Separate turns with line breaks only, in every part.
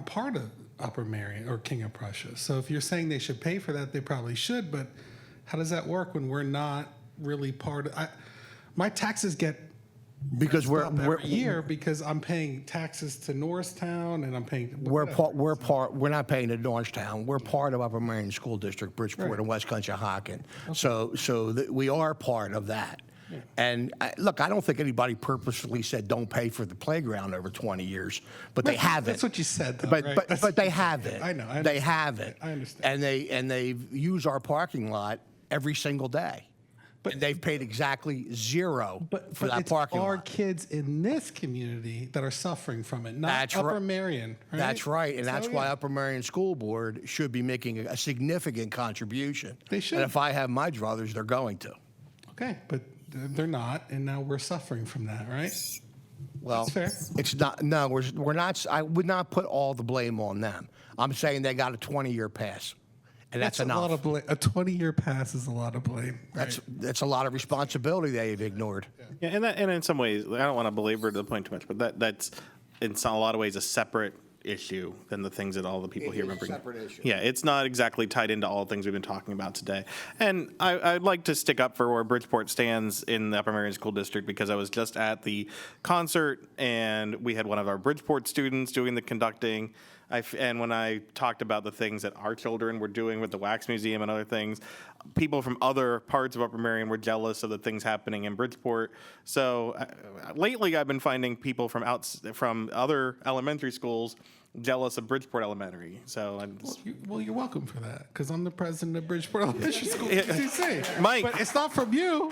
part of Upper Marion or King of Prussia. So if you're saying they should pay for that, they probably should. But how does that work when we're not really part? Of, I, my taxes get
Because we're,
up every
we're,
year because I'm paying taxes to Norristown and I'm paying.
we're part, we're part, we're not paying to Norristown. We're part of Upper Marion School District, Bridgeport, and West Conshohocken. So, so that we are part of that. And I, look, I don't think anybody purposefully said don't pay for the playground over 20 years, but they
Right,
haven't.
that's what you said, though,
but
right?
but,
That's
but they have it.
I know, I
they
understand.
have it.
I understand.
And they and they use our parking lot every single day. But and they've paid exactly zero
But
for
but
that
it's
parking
our
lot.
kids in this community that are suffering from it, not
That's ri-
Upper Marion. Right?
That's right, and
So,
that's why
yeah.
Upper Marion School Board should be making a, a significant contribution.
They should.
And if I have my druthers, they're going to.
Okay, but th- they're not, and now we're suffering from that, right?
Well,
fair.
it's not. No, we're we're not. s- I would not put all the blame on them. I'm saying they got a 20 year pass, and that's, enough.
a lot of blame. A 20 year pass is a lot of blame.
that's that's a lot of responsibility they've ignored.
Yeah, and that, and in some ways, I don't want to belabor the point too much, but that that's in some, a lot of ways a separate issue than the things that all the people here
is a
remember.
separate issue.
Yeah, it's not exactly tied into all the things we've been talking about today. And I, I'd like to stick up for where Bridgeport stands in the Upper Marion School District because I was just at the concert and we had one of our Bridgeport students doing the conducting. I f and when I talked about the things that our children were doing with the Wax Museum and other things, people from other parts of Upper Marion were jealous of the things happening in Bridgeport. So uh, lately, I've been finding people from outs from other elementary schools jealous of Bridgeport Elementary. So I'm just-
You, well, you're welcome for that because I'm the president of Bridgeport Elementary School. PTC.
Mike.
But it's not from you.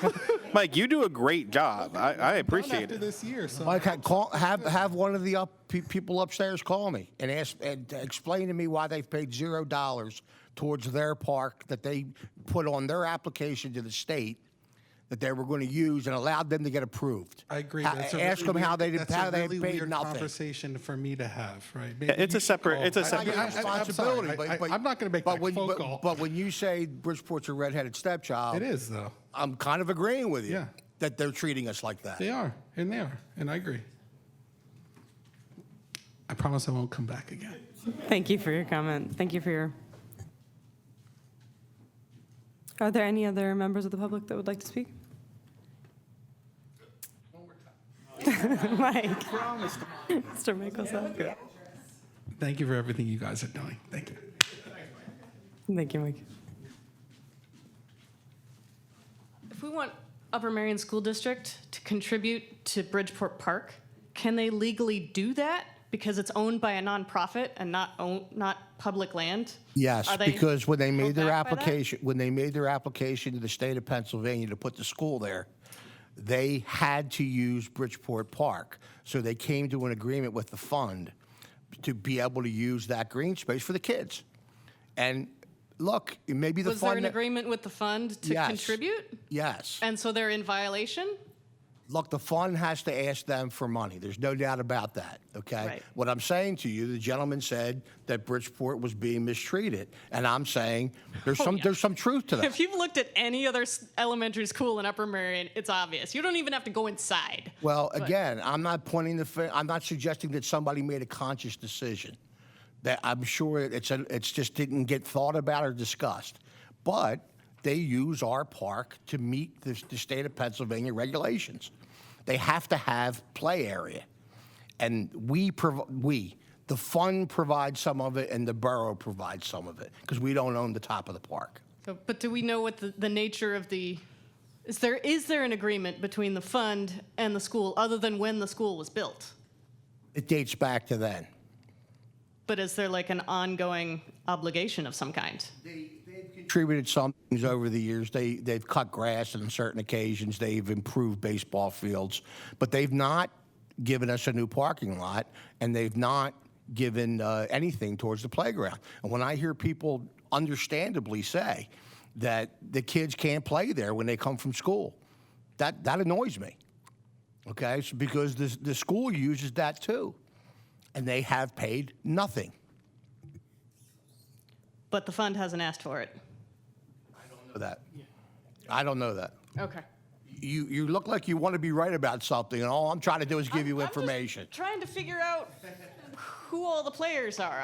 Mike, you do a great job. I, I appreciate
After
it.
this year, so
Like, I call, have have one of the up pe- people upstairs call me and ask and explain to me why they've paid zero dollars towards their park that they put on their application to the state that they were going to use and allowed them to get approved.
I agree.
Ha-
That's a
uh, ask
really
them how they
weird-
did,
that's a
how they
really
paid
weird
nothing.
Conversation for me to have, right? Maybe
It's
you
a
should
separate.
call.
It's a
I
separate.
get
I- I- I'm sorry.
responsibility,
I-
but,
I-
but-
I'm not gonna make
but
that
when-
phone
but-
call.
But when you say Bridgeport's a redheaded stepchild,
It is though.
I'm kind of agreeing with you
Yeah.
that they're treating us like that.
They are, and they are, and I agree. I promise I won't come back again.
Thank you for your comment. Thank you for your. Are there any other members of the public that would like to speak? Mike. Mr. Mickelson.
Thank you for everything you guys are doing. Thank you.
Thank you, Mike.
If we want Upper Marion School District to contribute to Bridgeport Park, can they legally do that because it's owned by a nonprofit and not own, not public land?
Yes,
Are they
because when they made
held
their
back by that?
application, when they made their application to the state of Pennsylvania to put the school there, they had to use Bridgeport Park. So they came to an agreement with the fund to be able to use that green space for the kids. And look, maybe the
Was there
fund.
an agreement with the fund to
Yes.
contribute?
Yes.
And so they're in violation?
Look, the fund has to ask them for money. There's no doubt about that, okay?
Right.
What I'm saying to you, the gentleman said that Bridgeport was being mistreated, and I'm saying there's some,
Oh, yeah.
there's some truth to that.
If you've looked at any other s- elementary school in Upper Marion, it's obvious. You don't even have to go inside.
Well, again, I'm not pointing the, fi- I'm not suggesting that somebody made a conscious decision. That I'm sure it's, a, it's just didn't get thought about or discussed. But they use our park to meet the, the state of Pennsylvania regulations. They have to have play area. And we, prov- we, the fund provides some of it and the borough provides some of it because we don't own the top of the park.
So, but do we know what the, the nature of the, is there, is there an agreement between the fund and the school other than when the school was built?
It dates back to then.
But is there like an ongoing obligation of some kind?
contributed some things over the years. They, they've cut grass on certain occasions. They've improved baseball fields, but they've not given us a new parking lot and they've not given uh, anything towards the playground. And when I hear people understandably say that the kids can't play there when they come from school, that, that annoys me. Okay, It's because the, the school uses that too, and they have paid nothing.
But the fund hasn't asked for it.
I don't know that. I don't know that.
Okay.
you, you look like you want to be right about something, and all I'm trying to do is give you
I'm just
information.
Trying to figure out who all the players are.